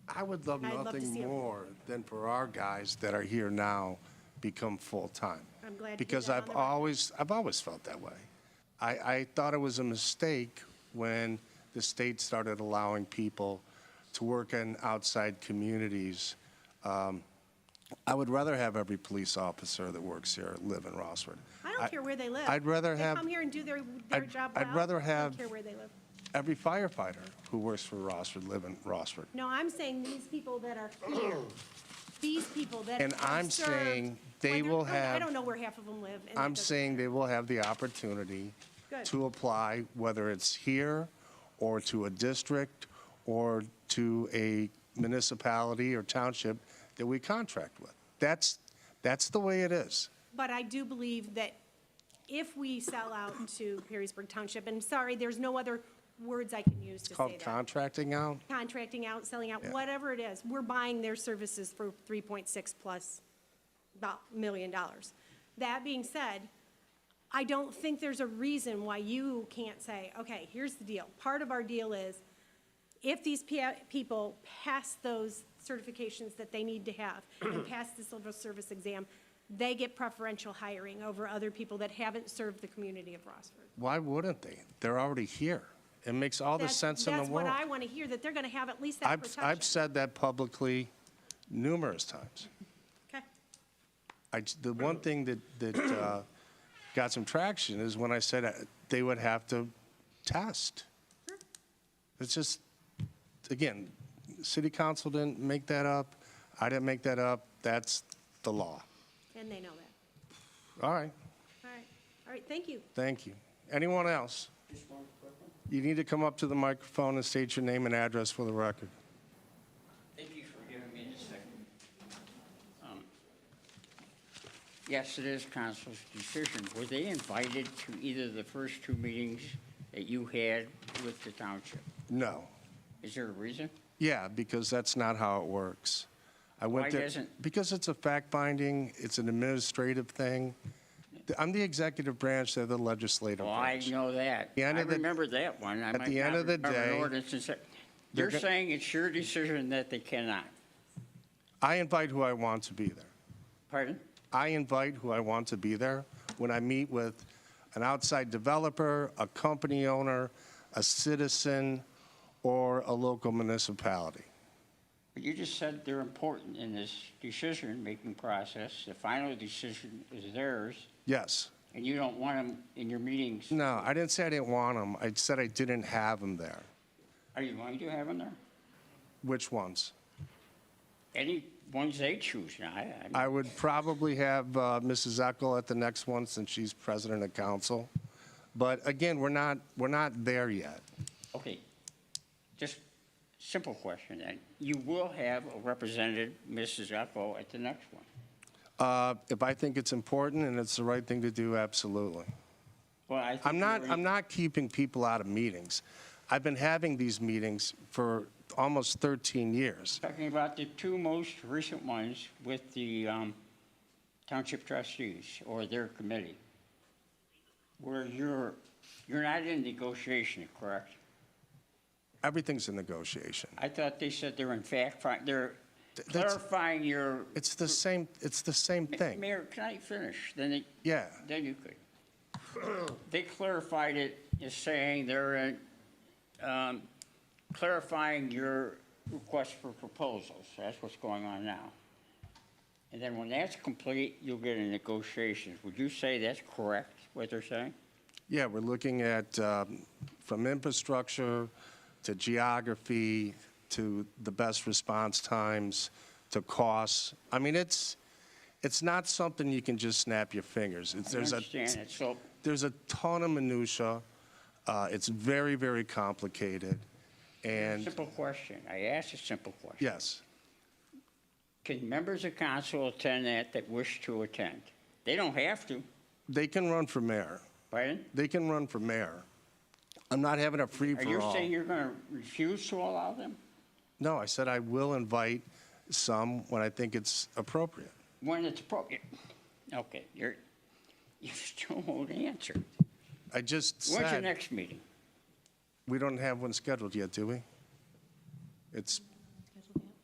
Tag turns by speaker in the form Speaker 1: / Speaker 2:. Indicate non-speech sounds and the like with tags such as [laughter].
Speaker 1: I would love
Speaker 2: I'd love to
Speaker 1: nothing
Speaker 2: see 'em.
Speaker 1: more than for our guys that are here now become full-time.
Speaker 2: I'm glad to get
Speaker 1: Because
Speaker 2: that on
Speaker 1: I've
Speaker 2: the record.
Speaker 1: always, I've always felt that way. I, I thought it was a mistake when the state started allowing people to work in outside communities. Um, I would rather have every police officer that works here live in Rossford.
Speaker 2: I don't care where they live.
Speaker 1: I'd rather have.
Speaker 2: They come here and do their, their
Speaker 1: I'd-
Speaker 2: job well.
Speaker 1: I'd rather
Speaker 2: I
Speaker 1: have-
Speaker 2: don't care where they live.
Speaker 1: every firefighter who works for Rossford live in Rossford.
Speaker 2: No, I'm saying these people that are here, these people that
Speaker 1: And
Speaker 2: have
Speaker 1: I'm
Speaker 2: served,
Speaker 1: saying they
Speaker 2: when they're-
Speaker 1: will
Speaker 2: I
Speaker 1: have-
Speaker 2: don't know where half of them live. and that
Speaker 1: I'm
Speaker 2: doesn't
Speaker 1: saying
Speaker 2: matter.
Speaker 1: they will have the opportunity
Speaker 2: Good.
Speaker 1: to apply, whether it's here or to a district or to a municipality or township that we contract with. That's, that's the way it is.
Speaker 2: But I do believe that if we sell out to Perrysburg Township, and sorry, there's no other words I can use to say
Speaker 1: Called
Speaker 2: that.
Speaker 1: contracting out.
Speaker 2: Contracting out, selling out,
Speaker 1: Yeah.
Speaker 2: whatever it is, we're buying their services for 3.6 plus about million dollars. That being said, I don't think there's a reason why you can't say, okay, here's the deal. Part of our deal is if these pea- people pass those certifications that they need
Speaker 1: [clears throat]
Speaker 2: to have and pass the civil service exam, they get preferential hiring over other people that haven't served the community of Rossford.
Speaker 1: Why wouldn't they? They're already here. It makes all the
Speaker 2: That's-
Speaker 1: sense in the world.
Speaker 2: That's what I want to hear, that they're going to have at least that
Speaker 1: I've, I've
Speaker 2: protection.
Speaker 1: said that publicly numerous times.
Speaker 2: Okay.
Speaker 1: I j the one thing that, that uh, got some traction is when I said uh, they would have to test.
Speaker 2: Sure.
Speaker 1: It's just, again, city council didn't make that up. I didn't make that up. That's the law.
Speaker 2: And they know that.
Speaker 1: All right,
Speaker 2: All right, all right, thank you.
Speaker 1: thank you. Anyone else? You need to come up to the microphone and state your name and address for the record.
Speaker 3: Thank you for giving me a second. Um, Yes, it is council's decision. Were they invited to either the first two meetings that you had with the township?
Speaker 1: No.
Speaker 3: Is there a reason?
Speaker 1: Yeah, because that's not how it works. I went
Speaker 3: Why
Speaker 1: there-
Speaker 3: doesn't-
Speaker 1: Because it's a fact-finding, it's an administrative thing. The- I'm the executive branch, they're the legislative
Speaker 3: Well, I
Speaker 1: branch.
Speaker 3: know that.
Speaker 1: The end
Speaker 3: I
Speaker 1: of the-
Speaker 3: remember that one. I
Speaker 1: At
Speaker 3: might
Speaker 1: the end
Speaker 3: not
Speaker 1: of the
Speaker 3: remember an
Speaker 1: day,
Speaker 3: ordinance and se-
Speaker 1: they're
Speaker 3: You're
Speaker 1: go-
Speaker 3: saying it's your decision that they cannot.
Speaker 1: I invite who I want to be there.
Speaker 3: Pardon?
Speaker 1: I invite who I want to be there. When I meet with an outside developer, a company owner, a citizen, or a local municipality.
Speaker 3: But You just said they're important in this decision-making process. The final decision is theirs,
Speaker 1: Yes.
Speaker 3: and you don't want them in your meetings.
Speaker 1: No, I didn't say I didn't want them. I said I didn't have them there.
Speaker 3: Are you going to have them there?
Speaker 1: Which ones?
Speaker 3: Any ones they choose, now, I, I,
Speaker 1: I would probably have uh, Mrs. Eckel at the next one since she's president of council. But again, we're not, we're not there yet.
Speaker 3: okay. Just simple question then. You will have a representative, Mrs. Eppo, at the next one.
Speaker 1: Uh, If I think it's important and it's the right thing to do, absolutely.
Speaker 3: Well, I think
Speaker 1: I'm not,
Speaker 3: you're-
Speaker 1: I'm not keeping people out of meetings. I've been having these meetings for almost 13 years.
Speaker 3: Talking about the two most recent ones with the, um, township trustees or their committee. Where you're, you're not in negotiation, correct?
Speaker 1: Everything's a negotiation.
Speaker 3: I thought they said they're in fact, fi- they're
Speaker 1: that's-
Speaker 3: clarifying your.
Speaker 1: It's the same, it's the same thing.
Speaker 3: Mayor, can I finish? Then they,
Speaker 1: Yeah,
Speaker 3: Then you could. They clarified it as saying they're in, um, clarifying your request for proposals. That's what's going on now. And then when that's complete, you'll get in negotiations. Would you say that's correct, what they're saying?
Speaker 1: yeah, we're looking at, um, from infrastructure to geography, to the best response times, to costs. I mean, it's, it's not something you can just snap your fingers. It's-
Speaker 3: I
Speaker 1: There's a
Speaker 3: understand it. So
Speaker 1: there's a ton of minutia. Uh, It's very, very complicated. And
Speaker 3: simple question. I asked a simple question.
Speaker 1: yes,
Speaker 3: Can members of council attend that that wish to attend? They don't have to,
Speaker 1: they can run for mayor.
Speaker 3: pardon?
Speaker 1: They can run for mayor. I'm not having a
Speaker 3: Are you
Speaker 1: free-for-all.
Speaker 3: saying you're gonna refuse to allow them?
Speaker 1: No, I said I will invite some when I think it's appropriate.
Speaker 3: when it's appropriate. Okay, you're, [laughs] you still won't answer.
Speaker 1: I just
Speaker 3: When's your
Speaker 1: said,
Speaker 3: next meeting?
Speaker 1: we don't have one scheduled yet, do we? It's